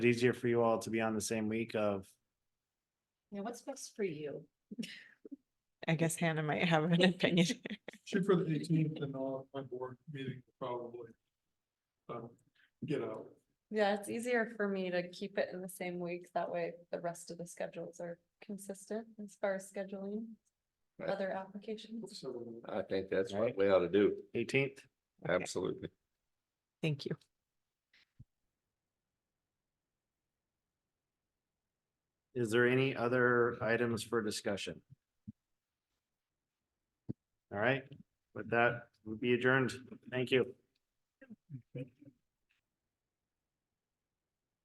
it easier for you all to be on the same week of, Yeah, what's best for you? I guess Hannah might have an opinion. Shoot for the eighteenth and I'll have my board meeting probably. Um, get out. Yeah, it's easier for me to keep it in the same week. That way the rest of the schedules are consistent as far as scheduling Right. other applications. So, I think that's Right. what we ought to do. eighteenth? Okay, Absolutely. Thank you. Is there any other items for discussion? All right, with that, we'll be adjourned. Thank you.